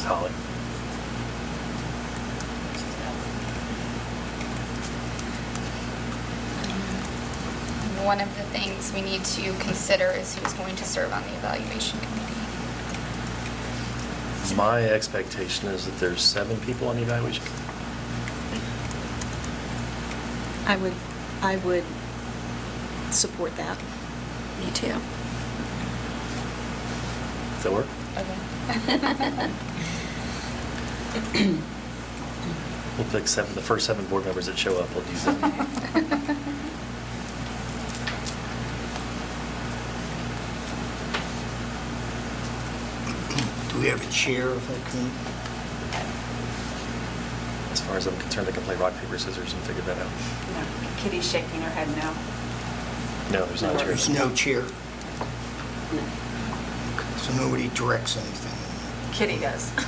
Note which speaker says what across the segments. Speaker 1: Holly.
Speaker 2: One of the things we need to consider is who's going to serve on the evaluation committee.
Speaker 1: My expectation is that there's seven people on the evaluation.
Speaker 3: I would, I would support that.
Speaker 4: Me too.
Speaker 1: Does that work?
Speaker 2: Okay.
Speaker 1: We'll pick seven, the first seven board members that show up, we'll use them.
Speaker 5: Do we have a chair of that committee?
Speaker 1: As far as I'm concerned, they can play rock, paper, scissors and figure that out.
Speaker 6: No, Kitty's shaking her head no.
Speaker 1: No, there's not a
Speaker 5: There's
Speaker 1: chair.
Speaker 5: no chair, so nobody directs anything.
Speaker 6: Kitty does.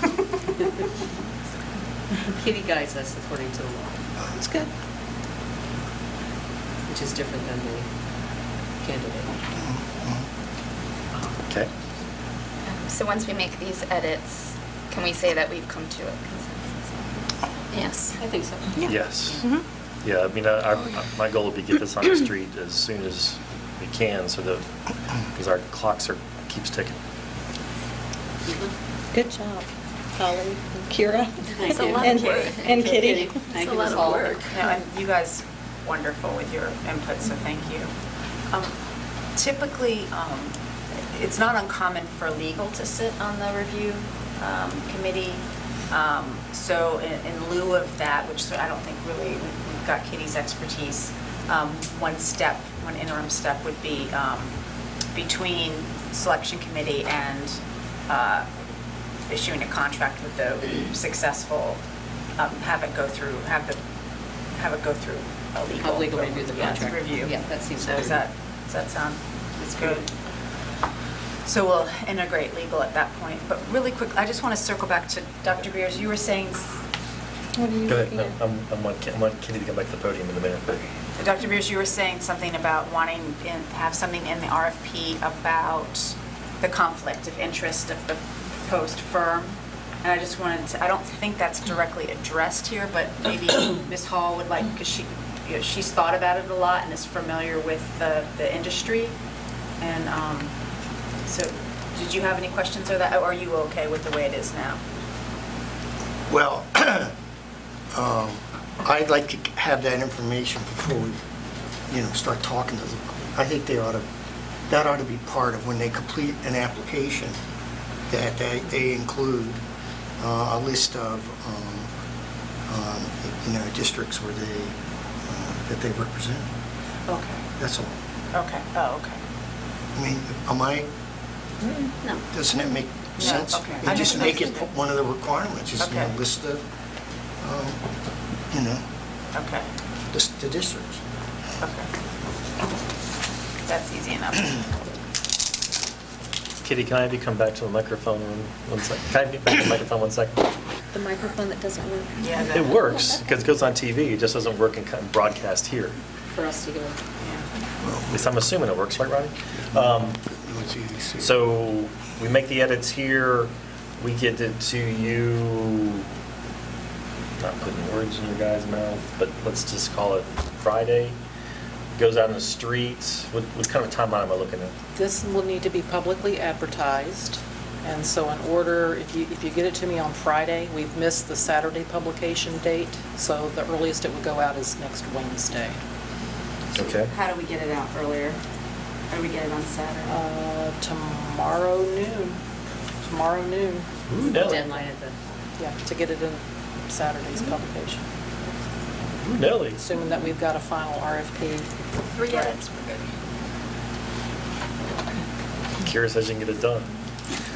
Speaker 7: Kitty guides us according to the law,
Speaker 5: Uh,
Speaker 3: It's good.
Speaker 7: which is different than the candidate.
Speaker 5: Uh-huh.
Speaker 1: Okay.
Speaker 2: So once we make these edits, can we say that we've come to a consensus?
Speaker 4: Yes.
Speaker 7: I think so.
Speaker 1: Yes.
Speaker 3: Mm-hmm.
Speaker 1: Yeah, I mean, I- I- my goal would be get this on the street as soon as we can so that, because our clocks are, keeps ticking.
Speaker 3: Good job, Holly and Kira.
Speaker 4: It's a lot of
Speaker 3: And-
Speaker 4: work.
Speaker 3: And Kitty.
Speaker 4: It's
Speaker 7: Thank
Speaker 4: a
Speaker 7: you
Speaker 4: lot
Speaker 7: for
Speaker 4: of
Speaker 7: all
Speaker 4: work.
Speaker 6: No, and you guys wonderful with your input, so thank you. Um, Typically, um, it's not uncommon for legal to sit on the review um, committee. Um, So in- in lieu of that, which so I don't think really, we- we've got Kitty's expertise, um, one step, one interim step would be um, between selection committee and uh, issuing a contract with the successful, um, have it go through, have the, have it go through a legal.
Speaker 7: Have legal review the
Speaker 6: Yes,
Speaker 7: contract.
Speaker 6: Review.
Speaker 7: Yeah, that seems
Speaker 6: So does
Speaker 7: fair.
Speaker 6: that, does that sound, it's good? So we'll integrate legal at that point, but really quick, I just want to circle back to Dr. Beers, you were saying,
Speaker 3: What are you
Speaker 1: Go ahead,
Speaker 3: looking
Speaker 1: no,
Speaker 3: at?
Speaker 1: I'm, I'm want Ki- I want Kitty to come back to the podium in a minute.
Speaker 6: Dr. Beers, you were saying something about wanting, in- have something in the RFP about the conflict of interest of the proposed firm, and I just wanted to, I don't think that's directly addressed here, but maybe Ms. Hall would like, because she, you know, she's thought about it a lot and is familiar with the, the industry, and um, so, did you have any questions or that, or are you okay with the way it is now?
Speaker 5: Well, um, I'd like to have that information before we, you know, start talking to them. I think they ought to, that ought to be part of when they complete an application, that they- they include uh, a list of, um, um, you know, districts where they, uh, that they represent.
Speaker 6: Okay,
Speaker 5: That's all.
Speaker 6: okay, oh, okay.
Speaker 5: I mean, am I,
Speaker 4: No.
Speaker 5: doesn't that make
Speaker 6: No,
Speaker 5: sense?
Speaker 6: okay.
Speaker 5: And
Speaker 6: I
Speaker 5: just
Speaker 6: just-
Speaker 5: make it one of the requirements, just, you know,
Speaker 6: Okay.
Speaker 5: list the, um, you know,
Speaker 6: Okay,
Speaker 5: list the districts.
Speaker 6: okay. That's easy enough.
Speaker 1: Kitty, can I have you come back to the microphone one, one second? Can I have you back to the microphone one second?
Speaker 3: The microphone that doesn't work.
Speaker 6: Yeah, that-
Speaker 1: It works, because it goes on TV, it just doesn't work in co- broadcast here.
Speaker 7: For us to go.
Speaker 6: Yeah.
Speaker 1: At least I'm assuming it works, right, Ronnie? Um,
Speaker 5: Let's see, let's see.
Speaker 1: So we make the edits here, we get it to you, not putting words in your guy's mouth, but let's just call it Friday. Goes out in the streets. What, what kind of timeline am I looking at?
Speaker 8: This will need to be publicly advertised, and so in order, if you, if you get it to me on Friday, we've missed the Saturday publication date, so the earliest it would go out is next Wednesday.
Speaker 1: Okay.
Speaker 4: How do we get it out earlier? How do we get it on Saturday?
Speaker 8: Uh, Tomorrow noon, tomorrow noon,
Speaker 1: Ooh, Nelly.
Speaker 7: Deadline at the,
Speaker 8: yeah, to get it in Saturday's publication,
Speaker 1: Ooh, Nelly.
Speaker 8: assuming that we've got a final RFP.
Speaker 6: Three edits.
Speaker 1: Kira says you can get it done.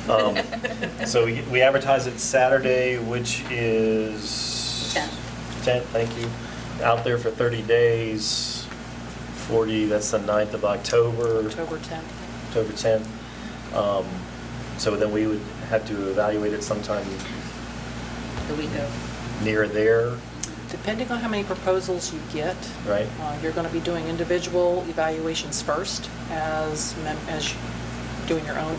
Speaker 1: Um, So we we advertise it Saturday, which is?
Speaker 7: Tenth.
Speaker 1: 10th, thank you. Out there for 30 days, 40, that's the 9th of October.
Speaker 8: October 10th.
Speaker 1: October 10th. Um, So then we would have to evaluate it sometime
Speaker 7: the week of.
Speaker 1: near there.
Speaker 8: Depending on how many proposals you get.
Speaker 1: Right.
Speaker 8: uh, You're going to be doing individual evaluations first as, mem- as doing your own